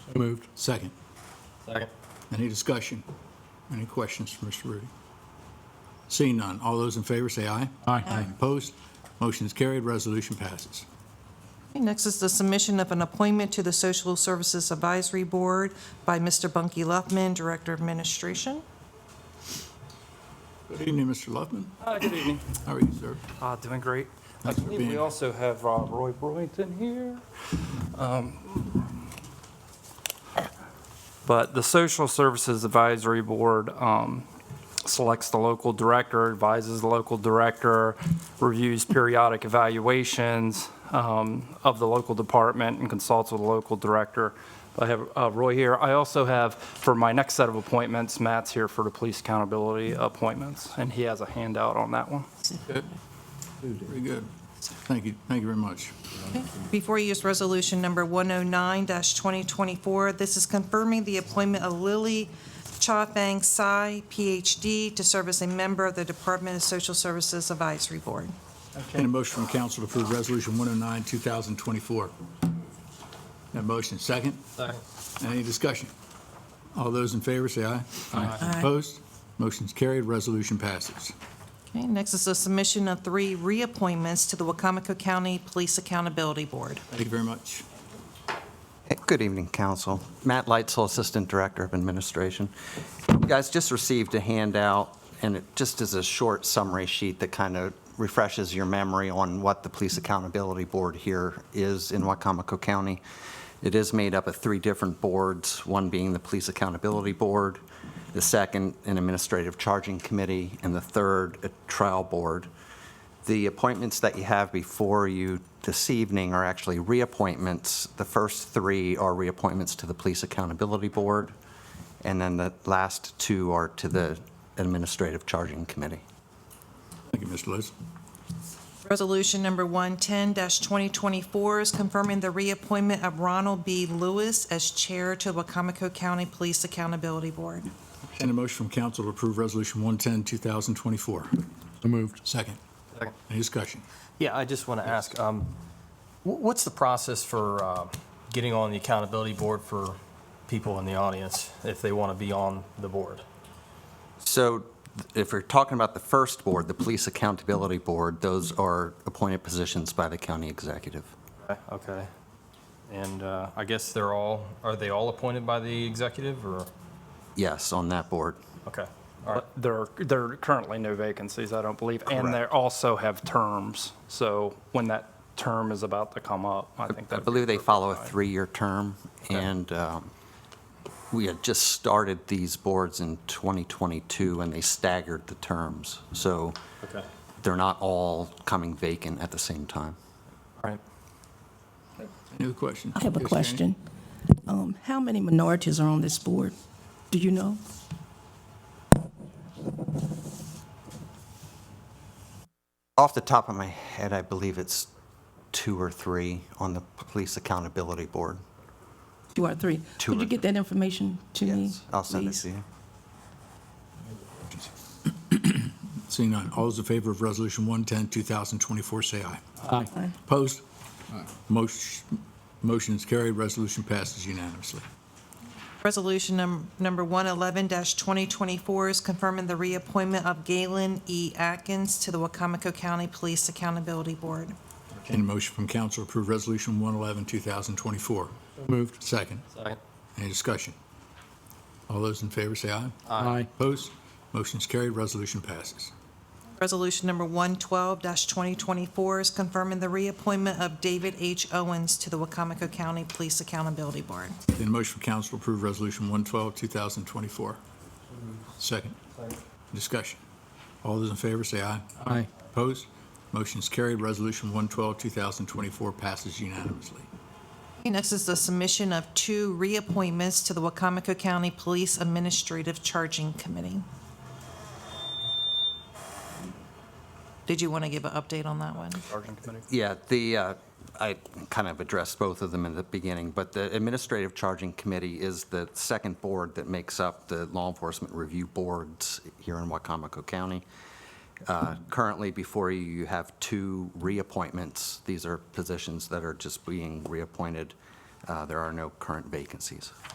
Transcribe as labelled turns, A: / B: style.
A: So moved. Second.
B: Second.
A: Any discussion? Any questions for Mr. Rudy? Seeing none, all those in favor say aye. Aye. Aye. Opposed? Motion is carried, resolution passes.
C: Next is the submission of an appointment to the Social Services Advisory Board by Mr. Bunky Luffman, Director of Administration.
A: Good evening, Mr. Luffman.
B: Uh, good evening.
A: How are you, sir?
B: Uh, doing great. I
A: Thanks for
B: believe
A: being
B: we
A: here.
B: also have uh, Roy Brewington here. Um, But the Social Services Advisory Board um, selects the local director, advises the local director, reviews periodic evaluations um, of the local department, and consults with the local director. I have uh, Roy here. I also have, for my next set of appointments, Matt's here for the police accountability appointments, and he has a handout on that one.
A: Good. Very good. Thank you, thank you very much.
C: Before you is Resolution Number 109-2024. This is confirming the appointment of Lily Chafang Sai, Ph.D., to serve as a member of the Department of Social Services Advisory Board.
A: Any motion from council to approve Resolution 109, 2024? That motion, second?
B: Second.
A: Any discussion? All those in favor say aye.
C: Aye.
A: Opposed? Motion's carried, resolution passes.
C: Okay, next is the submission of three reappointments to the Wacomico County Police Accountability Board.
A: Thank you very much.
D: Good evening, Council. Matt Leitzel, Assistant Director of Administration. You guys just received a handout, and it just is a short summary sheet that kind of refreshes your memory on what the Police Accountability Board here is in Wacomico County. It is made up of three different boards, one being the Police Accountability Board, the second, an Administrative Charging Committee, and the third, a Trial Board. The appointments that you have before you this evening are actually reappointments. The first three are reappointments to the Police Accountability Board, and then the last two are to the Administrative Charging Committee.
A: Thank you, Mr. Lewis.
C: Resolution number 110-2024 is confirming the reappointment of Ronald B. Lewis as Chair to the Wacomico County Police Accountability Board.
A: Any motion from council to approve Resolution 110, 2024? So moved. Second.
B: Second.
A: Any discussion?
E: Yeah, I just want to ask, um, wh- what's the process for uh, getting on the accountability board for people in the audience if they want to be on the board?
D: So if we're talking about the first board, the Police Accountability Board, those are appointed positions by the county executive.
E: Okay, Okay. And uh, I guess they're all, are they all appointed by the executive or?
D: Yes, on that board.
E: Okay, all right.
B: There are, there are currently no vacancies, I don't believe, and they
D: Correct.
B: also have terms. So when that term is about to come up, I think
D: I
B: that.
D: believe they follow a three-year term, and um, we had just started these boards in 2022, and they staggered the terms. So
E: Okay.
D: they're not all coming vacant at the same time.
E: All right.
A: Any other questions?
F: I have a
A: Yes, Janie?
F: question. Um, How many minorities are on this board? Do you know?
D: Off the top of my head, I believe it's two or three on the Police Accountability Board.
F: Two or three?
D: Two
F: Could
D: or
F: you get that information to me?
D: Yes, I'll send it
F: please?
D: to you.
A: Seeing none, all those in favor of Resolution 110, 2024, say aye.
F: Aye.
A: Opposed? Motion motion is carried, resolution passes unanimously.
C: Resolution num- number 111-2024 is confirming the reappointment of Galen E. Atkins to the Wacomico County Police Accountability Board.
A: Any motion from council to approve Resolution 111, 2024? Moved. Second.
E: Second.
A: Any discussion? All those in favor say aye.
E: Aye.
A: Opposed? Motion is carried, resolution passes.
C: Resolution number 112-2024 is confirming the reappointment of David H. Owens to the Wacomico County Police Accountability Board.
A: Entertained a motion from council to approve Resolution 112, 2024. Second. Discussion. All those in favor say aye. Aye. Opposed? Motion is carried, resolution 112, 2024 passes unanimously.
C: Okay, Next is the submission of two reappointments to the Wacomico County Police Administrative Charging Committee. Did you want to give an update on that one?
B: Charging committee.
D: Yeah, the, uh, I kind of addressed both of them in the beginning, but the Administrative Charging Committee is the second board that makes up the Law Enforcement Review Boards here in Wacomico County. Uh, Currently, before you, you have two reappointments. These are positions that are just being reappointed. Uh, There are no current vacancies.